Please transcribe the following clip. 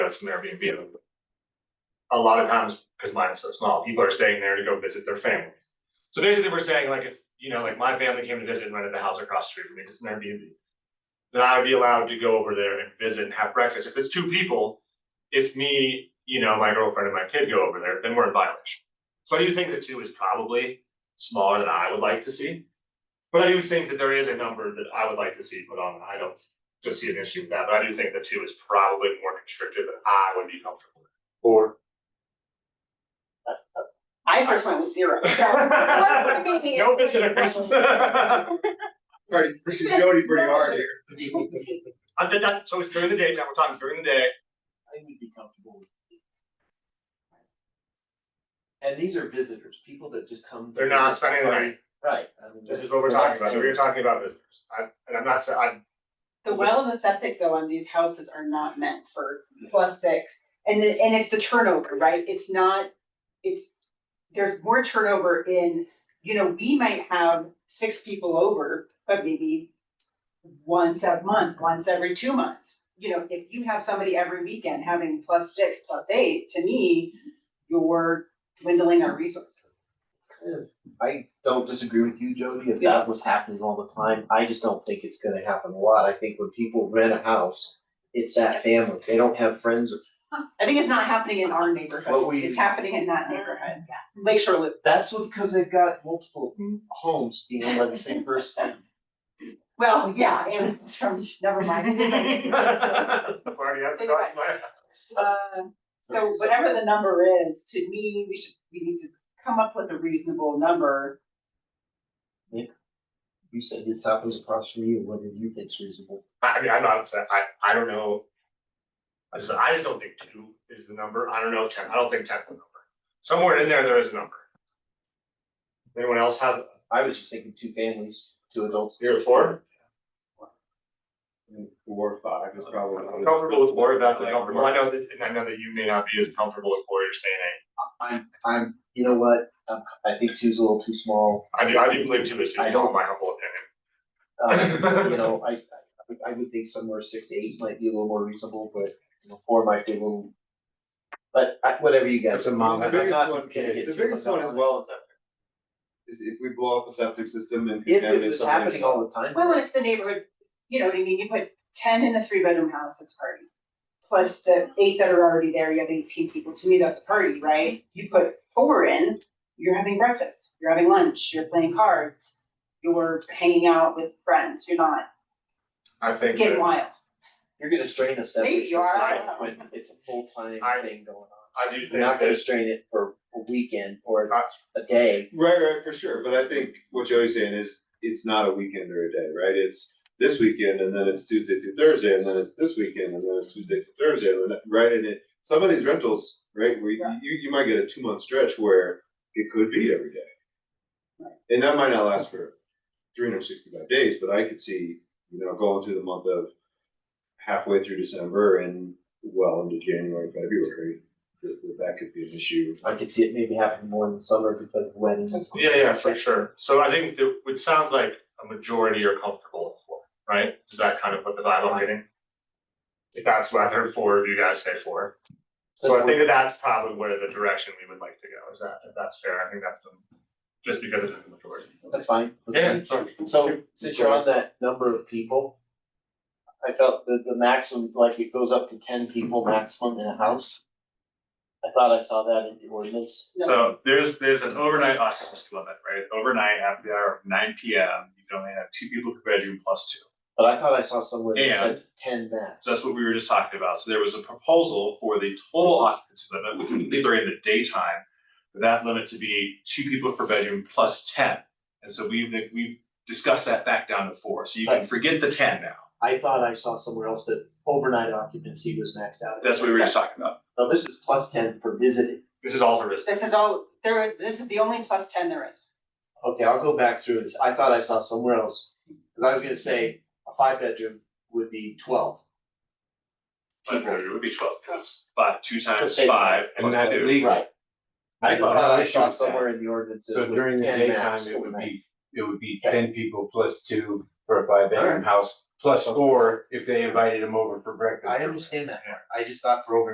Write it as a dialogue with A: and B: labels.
A: got some Airbnb. A lot of times, because mine is so small, people are staying there to go visit their families. So basically, we're saying like if, you know, like my family came to visit and rented the house across the street from me, 'cause it's an Airbnb. Then I would be allowed to go over there and visit and have breakfast. If it's two people, if me, you know, my girlfriend and my kid go over there, then we're in violation. So I do think that two is probably smaller than I would like to see. But I do think that there is a number that I would like to see put on. I don't just see an issue with that, but I do think the two is probably more constrictive than I would be comfortable with.
B: Or,
C: I first went with zero.
A: No visitors.
B: right, pushing Jody pretty hard here.
A: I think that's, so it's during the daytime, we're talking during the day,
D: I would be comfortable with. And these are visitors, people that just come. to
A: They're not
D: visit
A: spending the
D: somebody.
A: night.
D: Right. I mean,
A: this is what we're
D: they're not
A: talking about, we
D: staying.
A: were talking about visitors, I, and I'm not, sa- I'm,
C: The well and the septic though on these houses are not meant for plus six, and it, and it's the turnover, right? It's not, it's, there's more turnover in, you know, we might have six people over, but maybe once a month, once every two months. You know, if you have somebody every weekend having plus six, plus eight, to me, you're dwindling our resources.
D: It's kind of- I don't disagree with you, Jody, if
C: Yeah.
D: that was happening all the time, I just don't think it's gonna happen a lot, I think when people rent a house, it's that family, they don't have friends, or-
C: I think it's not happening in our
D: What
C: neighborhood,
D: we-
C: it's happening in that neighborhood, Lakeshore Loop.
D: that's what, because they've got multiple homes being owned by the same person.
C: Well, yeah, and it's from, never mind.
A: I've already had to
C: Take it back.
A: my-
C: Uh, So whatever the number is, to me, we should, we need to come up with a reasonable number.
D: You said this happens across from you, what do you think's reasonable?
A: I, I mean, I'm not, sa- I, I don't know. I just, I just don't think two is the number, I don't know if ten, I don't think ten's the number, somewhere in there, there is a number. Anyone else have
D: I was just thinking two families, two adults.
A: zero four?
B: Four or five is probably.
A: I'm comfortable with four, if that's uncomfortable, I know that, and I know that you may not be as comfortable with four, you're saying eight.
D: I'm, I'm, you know what, I'm, I think two's a little too small.
A: I do, I do believe two is too
D: I
A: small, in
D: don't-
A: my humble opinion.
D: Um, you know, I, I, would- I would think somewhere six, to eight might be a little more reasonable, but you know, four might be a little. But I, whatever you guys.
B: That's a mom.
D: I'm
B: The biggest
D: not
B: one-
D: gonna get
B: the
D: too
B: biggest
D: much
B: one
D: on
B: as
D: it.
B: well is septic. Is if we blow up a septic system and.
D: If it
B: contaminate
D: was
B: somebody's
D: happening all the time.
C: Well, it's the neighborhood, you know what I mean, you put ten in a three bedroom house, it's a party. Plus the eight that are already there, you have eighteen people, to me, that's a party, right? You put four in, you're having breakfast, you're having lunch, you're playing cards, you're hanging out with friends, you're not
A: I think
C: getting
A: that,
C: wild.
D: You're gonna strain a septic
C: Maybe you
D: system
C: are, I don't
D: when it's a full-time
A: I-
D: thing going on.
A: I do
D: You're
A: think
D: not
A: that
D: gonna strain it for a weekend or
A: Uh,
D: a day.
B: Right, right, for sure, but I think what Joey's saying is, it's not a weekend or a day, right? It's this weekend and then it's Tuesday through Thursday and then it's this weekend and then it's Tuesday through Thursday, and then, right? And it, some of these rentals, right, where you,
C: Right.
B: you, you might get a two month stretch where it could be every day. And that might not last for three hundred sixty five days, but I could see, you know, going through the month of halfway through December and well into January, February, that, that that could be an issue.
D: I could see it maybe happening more in the summer because of weddings.
A: Yeah, yeah, for sure. So I think that it sounds like a majority are comfortable with four, right? Is that kind of what the vibe I'm getting? If that's what I heard four of you guys say four. So I think that that's probably where the direction we would like to go. Is that, if that's fair, I think that's the, just because it is the majority.
D: That's fine. with me.
A: Yeah, so
D: So since you're on that number of people, I felt that the maximum, like it goes up to ten people maximum in a house. I thought I saw that in the ordinance.
E: So there's, there's an overnight occupancy limit, right? Overnight after the hour of nine P M, you can only have two people per bedroom plus two.
D: But I thought I saw somewhere that
E: Yeah.
D: said ten max.
E: So that's what we were just talking about. So there was a proposal for the total occupancy limit, which would be during the daytime. for That limit to be two people per bedroom plus ten. And so we've, we've discussed that back down to four. So you can
D: Right.
E: forget the ten now.
D: I thought I saw somewhere else that overnight occupancy was maxed out.
E: That's what we were just talking about.
D: Now, this is plus ten for visiting.
A: this is all for business.
C: This is all, there, this is the only plus ten there is.
D: Okay, I'll go back through this. I thought I saw somewhere else, cause I was gonna say a five bedroom would be twelve.
E: But
C: People.
E: it would be twelve, that's five, two times
D: Okay.
E: five plus
F: that
E: two.
F: legal.
D: Right. I
F: I don't
D: thought
F: have
D: I
F: issues
D: saw
F: with that.
D: somewhere in the ordinance
F: So
D: that it
F: during
D: was
F: the
D: ten
F: daytime,
D: max
F: it would
D: overnight.
F: be, it would be
D: Okay.
F: ten people plus two for a five bedroom house, plus four if they invited them over for breakfast.
D: I understand that part. I just thought for over